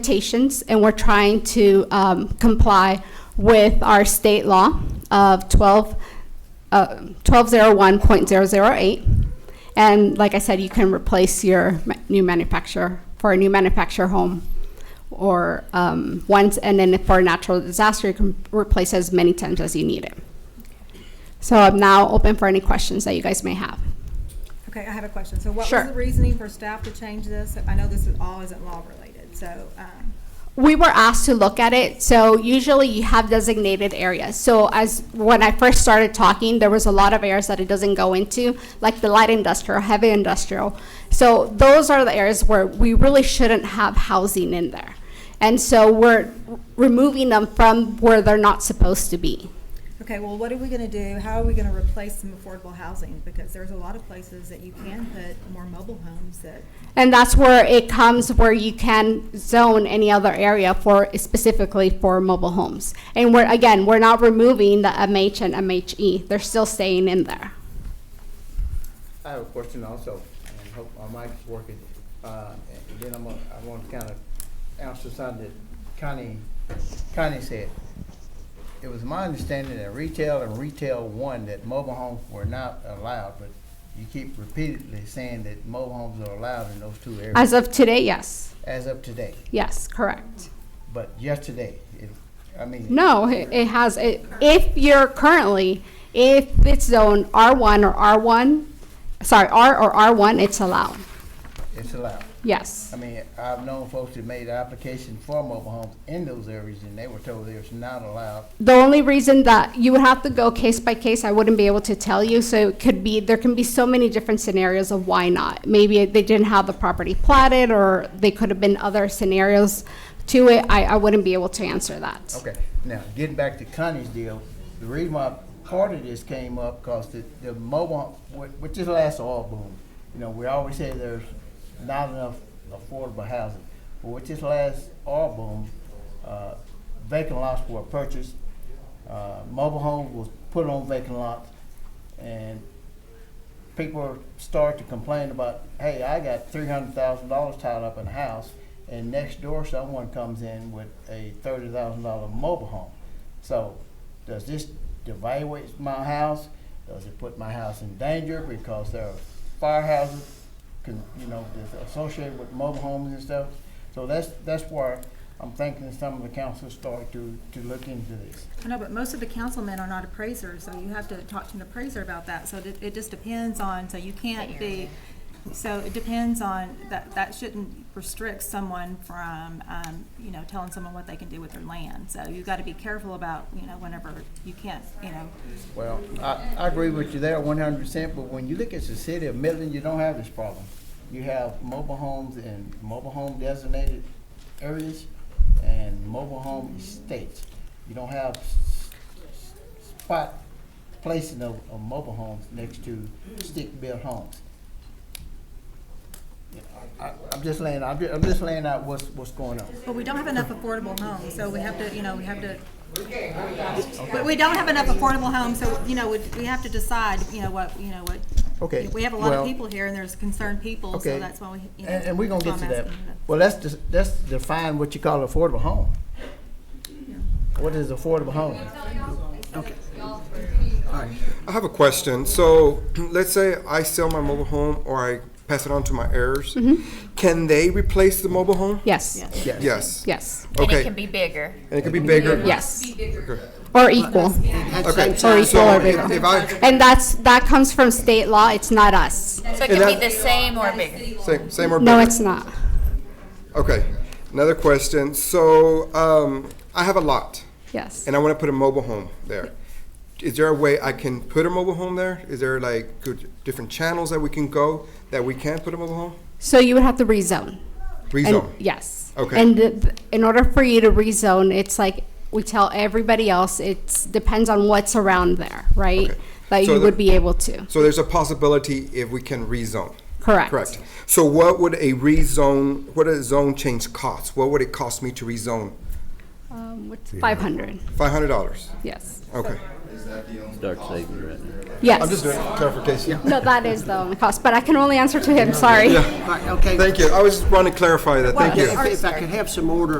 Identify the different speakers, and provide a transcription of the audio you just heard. Speaker 1: limitations, and we're trying to um, comply with our state law of 12, uh, 1201.008. And like I said, you can replace your ma- new manufacturer for a new manufacturer home or um, once, and then for a natural disaster, you can replace as many times as you need it. So I'm now open for any questions that you guys may have.
Speaker 2: Okay, I have a question. So what
Speaker 1: Sure.
Speaker 2: was the reasoning for staff to change this? I know this is all isn't law related, so, um,
Speaker 1: We were asked to look at it, so usually you have designated areas. So as, when I first started talking, there was a lot of areas that it doesn't go into, like the light industrial, heavy industrial. So those are the areas where we really shouldn't have housing in there. And so we're removing them from where they're not supposed to be.
Speaker 2: okay, well, what are we gonna do? How are we gonna replace some affordable housing? Because there's a lot of places that you can put more mobile homes that,
Speaker 1: And that's where it comes where you can zone any other area for specifically for mobile homes. And we're, again, we're not removing the MH and MHE. They're still staying in there.
Speaker 3: I have a question also, and hope my mic's working. Uh, and then I'm gonna, I want to kind of answer something that Connie, Connie said. It was my understanding that retail and retail one, that mobile homes were not allowed, but you keep repeatedly saying that mobile homes are allowed in those two areas
Speaker 1: As of today, yes.
Speaker 3: as of today.
Speaker 1: Yes, correct.
Speaker 3: But yesterday, it, I mean.
Speaker 1: No, it, it has, it, if you're currently, if it's zone R1 or R1, sorry, R or R1, it's allowed.
Speaker 3: It's allowed.
Speaker 1: Yes.
Speaker 3: I mean, I've known folks that made application for mobile homes in those areas, and they were told they was not allowed
Speaker 1: The only reason that you would have to go case by case, I wouldn't be able to tell you. So it could be, there can be so many different scenarios of why not. Maybe they didn't have the property platted or they could have been other scenarios to it. I, I wouldn't be able to answer that.
Speaker 3: Okay, now, getting back to Connie's deal, the reason why part of this came up, cause the, the mobile, with, with this last oil boom, you know, we always say there's not enough affordable housing. But with this last oil boom, uh, vacant lots were purchased, uh, mobile homes was put on vacant lots, and people start to complain about, hey, I got three hundred thousand dollars tied up in a house, and next door someone comes in with a thirty thousand dollar mobile home. So, does this devaluate my house? Does it put my house in danger because there are firehouses, con- you know, that's associated with mobile homes and stuff? So that's, that's where I'm thinking some of the council start to, to look into this.
Speaker 2: I know, but most of the councilmen are not appraisers, so you have to talk to an appraiser about that. So it, it just depends on, so you can't be, so it depends on, that, that shouldn't restrict someone from, um, you know, telling someone what they can do with their land. So you gotta be careful about, you know, whenever you can't, you know,
Speaker 3: Well, I, I agree with you there one hundred percent, but when you look at the city of Midland, you don't have this problem. You have mobile homes in mobile home designated areas and mobile home estates. You don't have s- s- spot placing of, of mobile homes next to stick-built homes. Yeah, I, I- I'm just laying, I'm ju- I'm just laying out what's, what's going on.
Speaker 2: But we don't have enough affordable homes, so we have to, you know, we have to, but we don't have enough affordable homes, so, you know, we, we have to decide, you know, what, you know, what.
Speaker 3: Okay,
Speaker 2: We have a lot
Speaker 3: well-
Speaker 2: of people here, and there's concerned people, so
Speaker 3: Okay.
Speaker 2: that's why we, you know.
Speaker 3: And, and we're gonna get
Speaker 2: that's
Speaker 3: to
Speaker 2: why I'm
Speaker 3: that.
Speaker 2: asking you that.
Speaker 3: Well, let's, dis- let's define what you call affordable home. What is affordable home?
Speaker 4: I have a question. So let's say I sell my mobile home or I pass it on to my heirs. Can they replace the mobile home?
Speaker 1: Yes,
Speaker 4: Yes.
Speaker 1: yes,
Speaker 5: And
Speaker 4: Okay.
Speaker 5: it can be bigger.
Speaker 4: And it could be bigger.
Speaker 1: yes. Or equal. Or
Speaker 4: Okay.
Speaker 1: equal
Speaker 4: So
Speaker 1: or
Speaker 4: if,
Speaker 1: bigger.
Speaker 4: if I
Speaker 1: And that's, that comes from state law. It's not us.
Speaker 5: So it can
Speaker 4: that-
Speaker 5: be the same or bigger.
Speaker 4: same, same or
Speaker 1: No,
Speaker 4: bigger.
Speaker 1: it's not.
Speaker 4: okay. Another question. So um, I have a lot,
Speaker 1: Yes.
Speaker 4: and I want to put a mobile home there. Is there a way I can put a mobile home there? Is there like good, different channels that we can go that we can put a mobile home?
Speaker 1: So you would have to rezone. And-
Speaker 4: Rezone.
Speaker 1: Yes.
Speaker 4: Okay.
Speaker 1: And th- th- in order for you to rezone, it's like we tell everybody else, it's depends on what's around there, right?
Speaker 4: Okay.
Speaker 1: That
Speaker 4: So
Speaker 1: you would
Speaker 4: the-
Speaker 1: be able to.
Speaker 4: So there's a possibility if we can rezone.
Speaker 1: Correct.
Speaker 4: Correct. So what would a rezone, what a zone change cost? What would it cost me to rezone
Speaker 1: Um, what's five hundred?
Speaker 4: Five hundred dollars.
Speaker 1: Yes.
Speaker 4: Okay.
Speaker 5: Start saving right now.
Speaker 1: Yes.
Speaker 4: I'm just doing clarification.
Speaker 1: No, that is the only cost, but I can only answer to him. Sorry.
Speaker 6: Right, okay.
Speaker 4: Thank you. I was just want to clarify that. Thank you.
Speaker 6: If if I could have some order